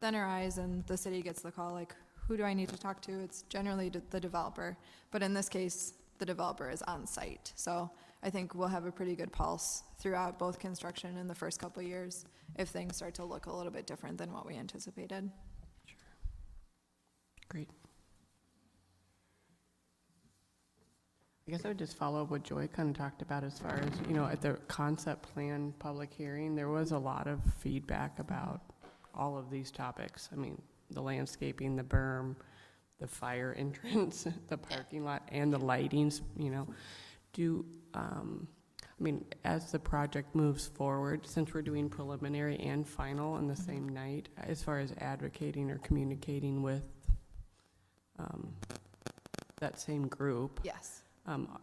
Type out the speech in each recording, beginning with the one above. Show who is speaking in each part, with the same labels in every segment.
Speaker 1: thinner eyes and the city gets the call, like, who do I need to talk to? It's generally d- the developer, but in this case, the developer is on site. So I think we'll have a pretty good pulse throughout both construction and the first couple of years if things start to look a little bit different than what we anticipated.
Speaker 2: Great. I guess I would just follow up what Joy kind of talked about as far as, you know, at the concept plan public hearing, there was a lot of feedback about all of these topics. I mean, the landscaping, the berm, the fire entrance, the parking lot, and the lightings, you know. Do, um, I mean, as the project moves forward, since we're doing preliminary and final on the same night, as far as advocating or communicating with um, that same group.
Speaker 1: Yes,
Speaker 2: Um,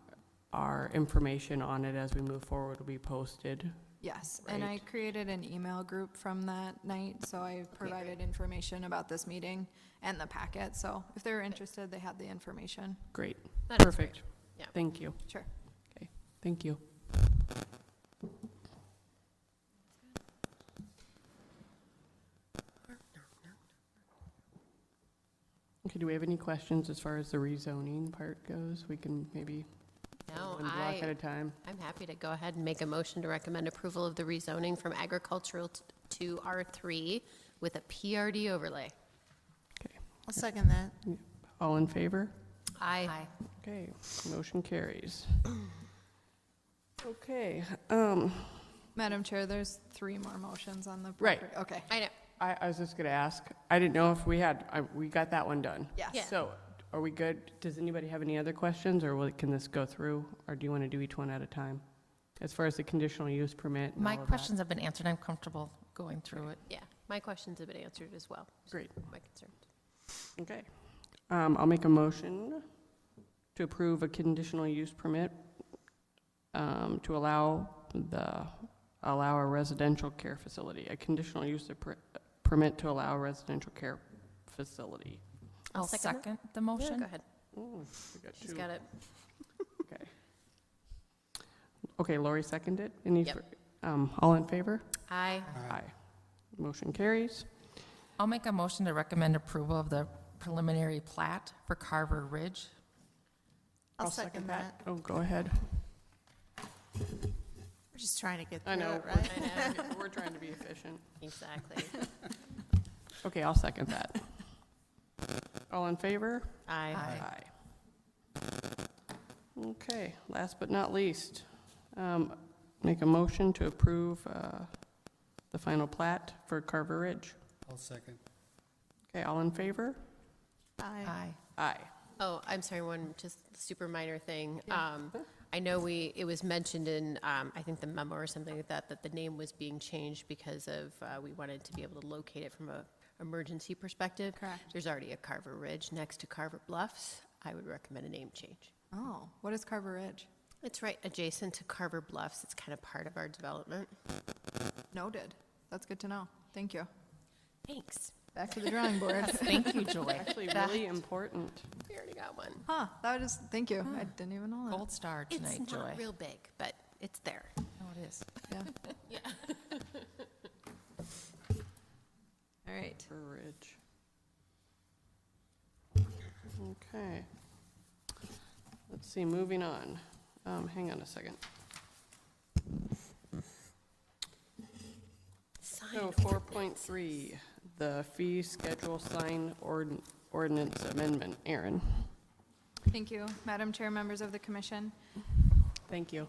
Speaker 2: Our information on it as we move forward will be posted.
Speaker 1: yes. And I
Speaker 2: Right.
Speaker 1: created an email group from that night, so I provided information about this meeting and the packet. So if they were interested, they had the information.
Speaker 2: Great,
Speaker 3: That is great.
Speaker 2: perfect.
Speaker 3: Yeah.
Speaker 2: Thank you,
Speaker 1: Sure.
Speaker 2: thank you. Okay, do we have any questions as far as the rezoning part goes? We can maybe
Speaker 3: No,
Speaker 2: one block at
Speaker 3: I,
Speaker 2: a time.
Speaker 3: I'm happy to go ahead and make a motion to recommend approval of the rezoning from agricultural t- to R3 with a PRD overlay.
Speaker 4: I'll second that.
Speaker 2: All in favor?
Speaker 3: Aye.
Speaker 2: Okay, motion carries. Okay, um,
Speaker 1: Madam Chair, there's three more motions on the.
Speaker 2: Right.
Speaker 1: proper- Okay,
Speaker 3: I know,
Speaker 2: I, I was just gonna ask, I didn't know if we had, I, we got that one done.
Speaker 1: yes.
Speaker 3: Yeah.
Speaker 2: So, are we good? Does anybody have any other questions, or will- can this go through? Or do you want to do each one at a time? As far as the conditional use permit and
Speaker 5: My
Speaker 2: all of that?
Speaker 5: questions have been answered. I'm comfortable going through it.
Speaker 3: yeah, my questions have been answered as well.
Speaker 2: Great.
Speaker 3: My concerns.
Speaker 2: Okay. Um, I'll make a motion to approve a conditional use permit um, to allow the, allow a residential care facility, a conditional use of per- permit to allow a residential care facility.
Speaker 3: I'll
Speaker 5: I'll
Speaker 3: second that.
Speaker 5: second the
Speaker 3: Yeah, go
Speaker 5: motion.
Speaker 3: ahead,
Speaker 2: Ooh, we got
Speaker 3: she's
Speaker 2: two.
Speaker 3: got it.
Speaker 2: Okay. Okay, Lori seconded. Any,
Speaker 3: Yep.
Speaker 2: fir- um, all in favor?
Speaker 3: Aye.
Speaker 2: Aye. Motion carries.
Speaker 5: I'll make a motion to recommend approval of the preliminary plat for Carver Ridge.
Speaker 4: I'll second that.
Speaker 2: Oh, go ahead.
Speaker 4: We're just trying to get through
Speaker 2: I know.
Speaker 4: it, right?
Speaker 3: I know,
Speaker 2: We're trying to be efficient.
Speaker 3: exactly.
Speaker 2: Okay, I'll second that. All in favor?
Speaker 3: Aye.
Speaker 5: Aye.
Speaker 2: Okay, last but not least, um, make a motion to approve uh, the final plat for Carver Ridge.
Speaker 6: I'll second.
Speaker 2: Okay, all in favor?
Speaker 4: Aye.
Speaker 5: Aye.
Speaker 2: Aye.
Speaker 3: Oh, I'm sorry, one just super minor thing. Um, I know we, it was mentioned in, um, I think the memo or something like that, that the name was being changed because of, uh, we wanted to be able to locate it from a emergency perspective.
Speaker 1: Correct.
Speaker 3: There's already a Carver Ridge next to Carver Bluffs. I would recommend a name change.
Speaker 1: Oh, what is Carver Ridge?
Speaker 3: It's right adjacent to Carver Bluffs. It's kind of part of our development.
Speaker 1: Noted. That's good to know. Thank you.
Speaker 3: Thanks.
Speaker 1: Back to the drawing board.
Speaker 5: Thank you, Joy.
Speaker 2: Actually, really important.
Speaker 3: We already got one.
Speaker 1: Huh, that was, thank you. I didn't even know
Speaker 5: Gold star
Speaker 3: It's
Speaker 5: tonight, Joy.
Speaker 3: not real big, but it's there.
Speaker 5: No, it is.
Speaker 1: that. Yeah. All right.
Speaker 2: Carver Ridge. Okay. Let's see, moving on. Um, Hang on a second.
Speaker 3: Sign
Speaker 2: So
Speaker 3: ordinance.
Speaker 2: 4.3, the fee schedule sign ord- ordinance amendment. Aaron?
Speaker 1: Thank you, Madam Chair, members of the commission.
Speaker 2: Thank you.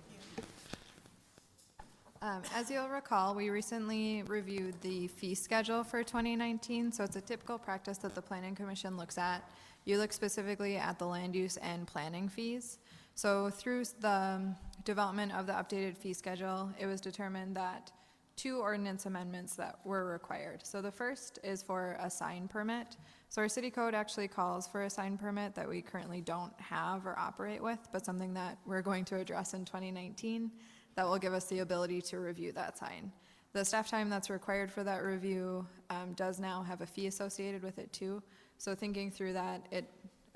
Speaker 1: Um, As you'll recall, we recently reviewed the fee schedule for 2019, so it's a typical practice that the Planning Commission looks at. You look specifically at the land use and planning fees. So through s- the um, development of the updated fee schedule, it was determined that two ordinance amendments that were required. So the first is for a sign permit. So our city code actually calls for a sign permit that we currently don't have or operate with, but something that we're going to address in 2019 that will give us the ability to review that sign. The staff time that's required for that review um, does now have a fee associated with it too. So thinking through that, it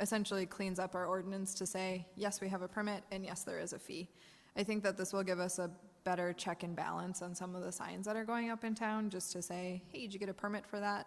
Speaker 1: essentially cleans up our ordinance to say, yes, we have a permit, and yes, there is a fee. I think that this will give us a better check and balance on some of the signs that are going up in town, just to say, hey, did you get a permit for that?